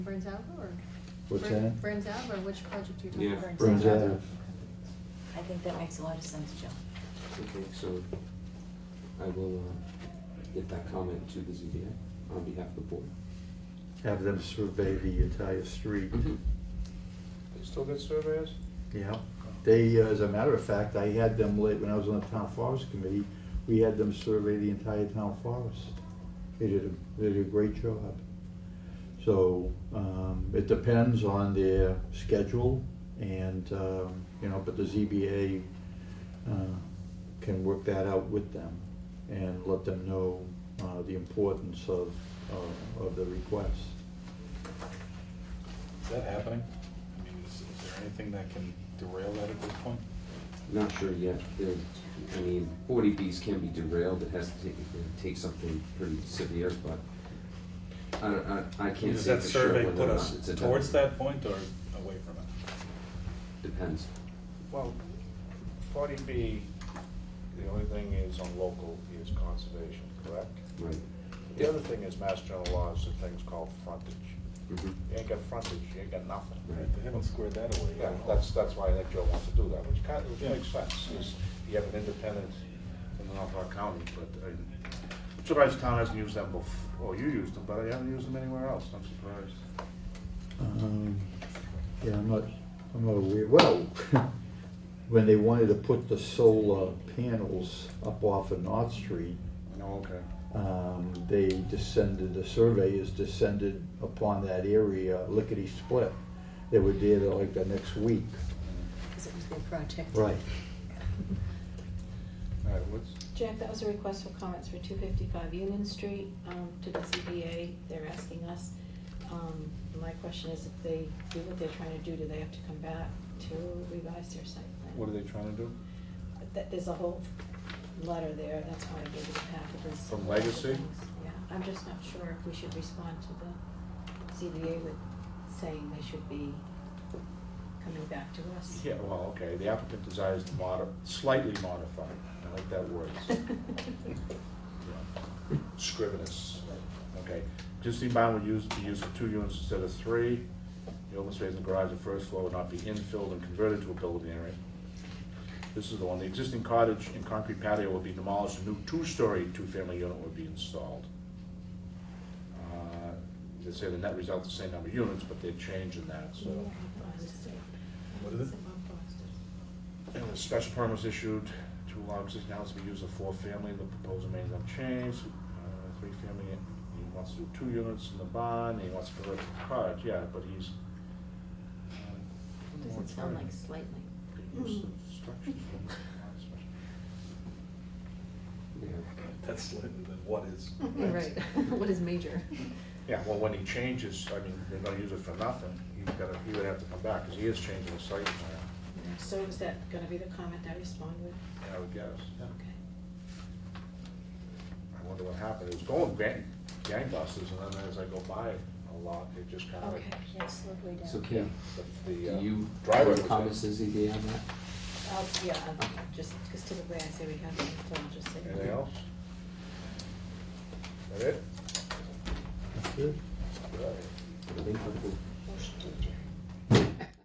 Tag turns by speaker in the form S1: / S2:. S1: Burns Alva or?
S2: What's
S1: Burn-
S2: that?
S1: Burns Alva, or which project you're talking
S3: Yeah,
S1: about?
S2: Burns
S3: Alva.
S2: Alva.
S4: I think that makes a lot of sense, Joe.
S3: Okay, so I will uh, get that comment to the ZBA on behalf of the board.
S2: Have them survey the entire street.
S5: They still get surveyors?
S2: Yeah, they, uh, as a matter of fact, I had them late, when I was on the town forest committee, we had them survey the entire town forest. They did, a they did a great job. So, um, it depends on their schedule and, um, you know, but the ZBA, uh, can work that out with them and let them know, uh, the importance of, of, of the request.
S5: Is that happening? I mean, is, is there anything that can derail that at this point?
S3: Not sure yet. There- I mean, 40Bs can be derailed. It has to take, it takes something pretty severe, but I don't- I, I can't
S5: Does
S3: say
S5: that
S3: for sure
S5: survey
S3: whether
S5: put
S3: or
S5: us
S3: not it's a.
S5: towards that point or away from it?
S3: Depends.
S6: Well, forty B, the only thing is on local is conservation, correct?
S3: Right.
S6: The other thing is mass general laws and things called frontage.
S3: Mhm.
S6: You ain't got frontage, you ain't got nothing.
S3: Right.
S5: They haven't squared that away
S6: Yeah,
S5: yet.
S6: that's, that's why I think Joe wants to do that, which kind of, which
S5: Yeah.
S6: makes sense, is you have an independent in the Norfolk County, but I, I'm surprised the town hasn't used them before, well, you used them, but I haven't used them anywhere else, I'm surprised.
S2: Um, Yeah, I'm not, I'm not aware, well, when they wanted to put the solar panels up off of North Street,
S5: Oh,
S6: No, okay.
S2: um, they descended, the surveyors descended upon that area lickety-split. They were there like the next week.
S4: Because it was their project.
S2: Right.
S6: All right, what's,
S7: Jack, that was a request for comments for two fifty-five Union Street, um, to the CBA, they're asking us. Um, my question is if they do what they're trying to do, do they have to come back to revise their site plan?
S5: What are they trying to do?
S7: That, there's a whole letter there, that's why I gave you the packet, there's.
S6: From Legacy?
S7: Yeah, I'm just not sure if we should respond to the CBA with saying they should be coming back to us.
S6: Yeah, well, okay, the applicant desires to modi, slightly modify, I like that word. Scrivenus, okay. Existing barn would use, be used for two units instead of three. The open space in the garage and first floor would not be infilled and converted to a building area. This is the one, the existing cottage and concrete patio will be demolished, a new two-story, two-family unit would be installed. Uh, They say the net result is the same number of units, but they're changing that, so.
S5: What is it?
S6: And the special permit was issued to allow existing house to be used for four family, the proposal remains unchanged, uh, three family, he wants to do two units in the barn, he wants to convert it to cottage, yeah, but he's. uh,
S7: Doesn't sound like slightly.
S6: Could use the structures for the barn, especially.
S3: Yeah.
S5: That's slightly than what is.
S4: Right, what is major?
S6: Yeah, well, when he changes, I mean, they're gonna use it for nothing, he's gotta, he would have to come back, cause he is changing the site plan,
S7: So is that gonna be the comment I respond with?
S6: I would guess.
S7: Okay.
S6: I wonder what happened, it was going gang, gangbusters, and then as I go by a lot, it just kinda like
S7: Okay.
S1: Yeah, slowed way down.
S3: So Kim,
S6: the, the
S3: do
S6: uh,
S3: you
S6: driveway was
S3: have
S6: in.
S3: comments to ZBA on that?
S7: Uh, yeah, I'll just, because typically I say we have, it, so I'll just say.
S6: Anything else? That it?
S2: That's it.
S6: Right.
S3: I think we're cool.